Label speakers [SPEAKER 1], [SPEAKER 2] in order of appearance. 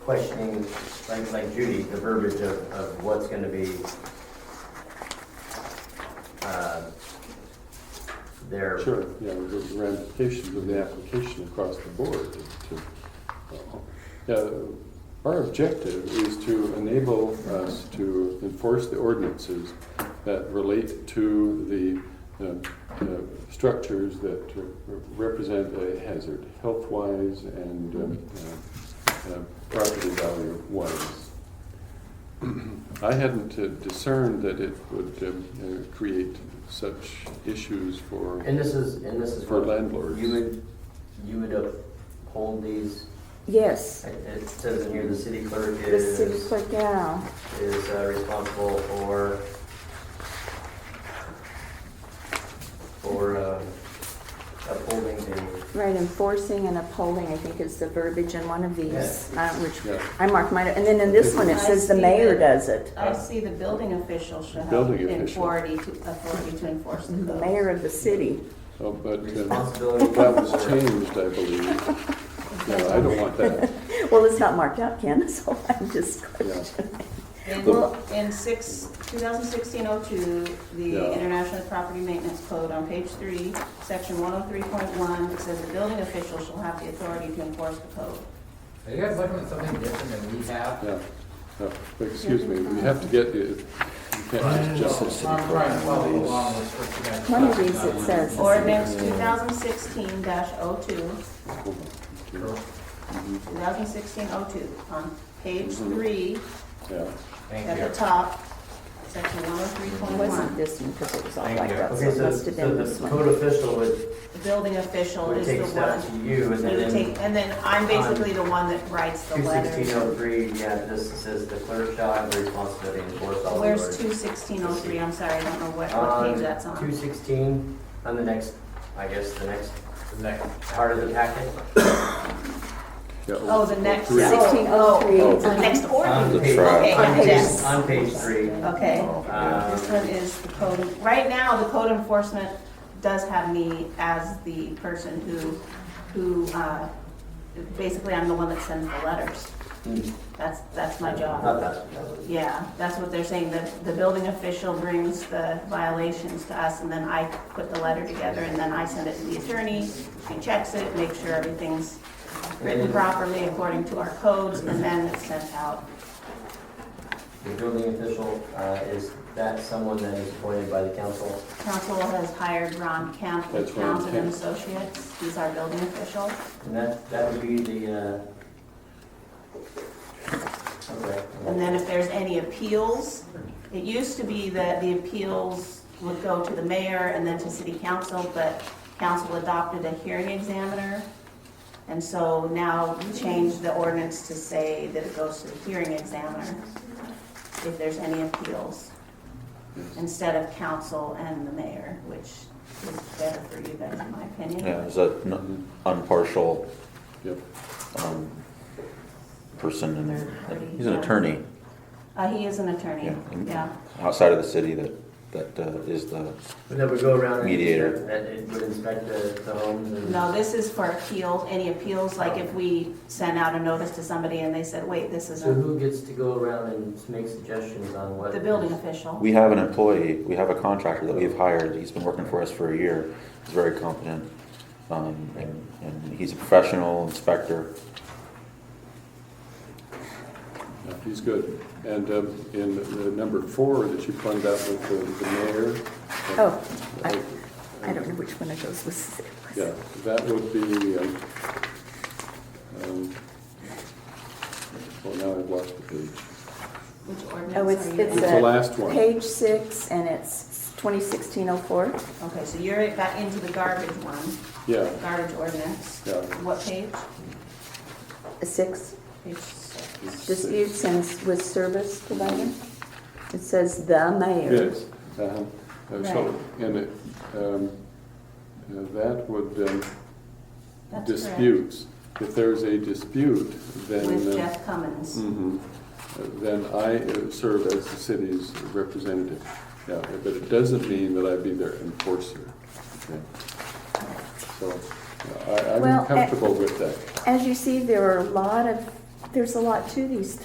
[SPEAKER 1] questioning, like, like Judy, the verbiage of, of what's gonna be, uh, there.
[SPEAKER 2] Sure, yeah, there's the ramifications of the application across the board. to- Yeah, Our objective is to enable us to enforce the ordinances that relate to the uh, uh, structures that represent a hazard, health-wise and um, uh, uh, property value-wise. I hadn't uh, discerned that it would um, uh, create such issues for
[SPEAKER 1] And this is, and this is.
[SPEAKER 2] For
[SPEAKER 1] what
[SPEAKER 2] landlords.
[SPEAKER 1] You would, you would uphold these,
[SPEAKER 3] Yes,
[SPEAKER 1] it- it says in here, the city clerk
[SPEAKER 3] the city
[SPEAKER 1] is,
[SPEAKER 3] clerk now.
[SPEAKER 1] is uh, responsible for, for, uh, upholding the,
[SPEAKER 3] Right, enforcing and upholding, I think is the verbiage in one of these, uh, which
[SPEAKER 2] Yeah.
[SPEAKER 3] I marked mine, and then in this one, it says the mayor does it.
[SPEAKER 4] I see the building official should have
[SPEAKER 2] Building
[SPEAKER 4] the
[SPEAKER 2] official.
[SPEAKER 4] authority to, authority to enforce the
[SPEAKER 3] The
[SPEAKER 4] code.
[SPEAKER 3] mayor of the city.
[SPEAKER 2] Oh, but uh,
[SPEAKER 1] responsibility.
[SPEAKER 2] that was
[SPEAKER 1] for-
[SPEAKER 2] changed, I believe. No, I don't want that.
[SPEAKER 3] Well, it's not marked out, Ken, so I'm just
[SPEAKER 2] Yeah.
[SPEAKER 3] questioning.
[SPEAKER 4] In,
[SPEAKER 2] Well-
[SPEAKER 4] in six, 2016-02,
[SPEAKER 2] Yeah.
[SPEAKER 4] the International Property Maintenance Code, on page three, section 103.1, it says the building official shall have the authority to enforce the code.
[SPEAKER 5] Are you guys looking at something different than we have?
[SPEAKER 2] Yeah, no, excuse me, we have to get, you you can't just jump.
[SPEAKER 5] I'm trying to follow along with what you guys.
[SPEAKER 3] One of these, it says,
[SPEAKER 4] Ordinance 2016-02,
[SPEAKER 2] Hold on.
[SPEAKER 4] 2016-02, on page
[SPEAKER 2] Mm-hmm.
[SPEAKER 4] three,
[SPEAKER 2] Yeah,
[SPEAKER 5] Thank
[SPEAKER 4] at the
[SPEAKER 5] you.
[SPEAKER 4] top, section
[SPEAKER 3] it
[SPEAKER 4] 103.1.
[SPEAKER 3] wasn't this one, because it was all
[SPEAKER 5] Thank
[SPEAKER 3] blacked
[SPEAKER 5] you.
[SPEAKER 3] out, so
[SPEAKER 1] Okay,
[SPEAKER 3] it
[SPEAKER 1] so,
[SPEAKER 3] must
[SPEAKER 1] so
[SPEAKER 3] have been this
[SPEAKER 1] the
[SPEAKER 3] one.
[SPEAKER 1] code official would,
[SPEAKER 4] The building official
[SPEAKER 1] would
[SPEAKER 4] is the
[SPEAKER 1] take steps
[SPEAKER 4] one.
[SPEAKER 1] to you and
[SPEAKER 4] You would
[SPEAKER 1] then
[SPEAKER 4] take, and then I'm basically the one that writes the
[SPEAKER 1] two sixteen oh
[SPEAKER 4] letter.
[SPEAKER 1] three, yeah, this says the clerk shall have the responsibility to enforce all the orders.
[SPEAKER 4] Where's two sixteen oh three? I'm sorry, I don't know what, what page that's
[SPEAKER 1] On Uh, two
[SPEAKER 4] on.
[SPEAKER 1] sixteen, on the next, I guess, the next
[SPEAKER 5] The next-
[SPEAKER 1] part of the packet.
[SPEAKER 2] yeah.
[SPEAKER 4] Oh, the next.
[SPEAKER 2] Three.
[SPEAKER 4] oh, oh, The
[SPEAKER 3] 1603.
[SPEAKER 4] next
[SPEAKER 1] On
[SPEAKER 4] order.
[SPEAKER 1] page-
[SPEAKER 4] Okay,
[SPEAKER 1] on
[SPEAKER 4] I
[SPEAKER 1] page-
[SPEAKER 4] guess.
[SPEAKER 1] On page three.
[SPEAKER 4] Okay.
[SPEAKER 1] Um,
[SPEAKER 4] This one is the code, right now, the code enforcement does have me as the person who, who, uh, basically I'm the one that sends the letters. That's, that's my job.
[SPEAKER 1] Not that, that was-
[SPEAKER 4] Yeah, that's what they're saying, that the building official brings the violations to us, and then I put the letter together, and then I send it to the attorney, he checks it, makes sure everything's written properly according to our codes, and then it's sent out.
[SPEAKER 1] the building official, uh, is that someone that is appointed by the council?
[SPEAKER 4] Council has hired Ron Camp
[SPEAKER 2] That's
[SPEAKER 4] with
[SPEAKER 2] Ron
[SPEAKER 4] Townsend and
[SPEAKER 2] Camp.
[SPEAKER 4] Associates, he's our building official.
[SPEAKER 1] And that, that would be the, uh, okay.
[SPEAKER 4] And then if there's any appeals, it used to be that the appeals would go to the mayor and then to city council, but council adopted a hearing examiner. And so now we changed the ordinance to say that it goes to the hearing examiner if there's any appeals, instead of council and the mayor, which is better for you guys, in my opinion.
[SPEAKER 6] Yeah, is that an impartial
[SPEAKER 2] Yep,
[SPEAKER 6] um, person in there? He's an attorney,
[SPEAKER 4] Uh, he is an attorney,
[SPEAKER 6] yeah. in-
[SPEAKER 4] yeah.
[SPEAKER 6] Outside of the city that, that uh, is the,
[SPEAKER 1] And then we go around and.
[SPEAKER 6] Mediator.
[SPEAKER 1] And it would inspect the, the homes and.
[SPEAKER 4] No, this is for appeals, any appeals, like if we sent out a notice to somebody and they said, wait, this
[SPEAKER 1] So
[SPEAKER 4] isn't
[SPEAKER 1] who gets to go around and make suggestions on what?
[SPEAKER 4] the building official.
[SPEAKER 6] we have an employee, we have a contractor that we've hired, he's been working for us for a year, he's very competent. um, And, and he's a professional inspector.
[SPEAKER 2] yeah, he's good. And um, in the number four that you pointed out with the- the mayor. Uh,
[SPEAKER 3] Oh, I, I don't know which one of those was. it was.
[SPEAKER 2] Yeah, that would be, um, um, well, now I've lost the page.
[SPEAKER 4] Which
[SPEAKER 3] Oh, it's,
[SPEAKER 4] ordinance are you
[SPEAKER 3] it's
[SPEAKER 2] It's
[SPEAKER 4] in?
[SPEAKER 2] the
[SPEAKER 3] a.
[SPEAKER 2] last one.
[SPEAKER 3] Page six, and it's 201604.
[SPEAKER 4] Okay, so you're back into the garbage one,
[SPEAKER 2] Yeah,
[SPEAKER 4] garbage ordinance.
[SPEAKER 2] Yeah.
[SPEAKER 4] What page?
[SPEAKER 3] Six,
[SPEAKER 4] Page six.
[SPEAKER 3] disputes and s- with service provider. It says the mayor.
[SPEAKER 2] yes. Uh-huh. Uh, So, and it, um, uh, that would, um,
[SPEAKER 4] That's correct.
[SPEAKER 2] disputes. If there's a dispute, then.
[SPEAKER 4] With
[SPEAKER 2] uh,
[SPEAKER 4] Jeff Cummins.
[SPEAKER 2] mhm, uh, Then I uh, serve as the city's representative. Yeah, but it doesn't mean that I be their enforcer. Okay. So, uh, I,
[SPEAKER 3] Well,
[SPEAKER 2] I'm
[SPEAKER 3] a-
[SPEAKER 2] comfortable with that.
[SPEAKER 3] As you see, there are a lot of there's a lot to these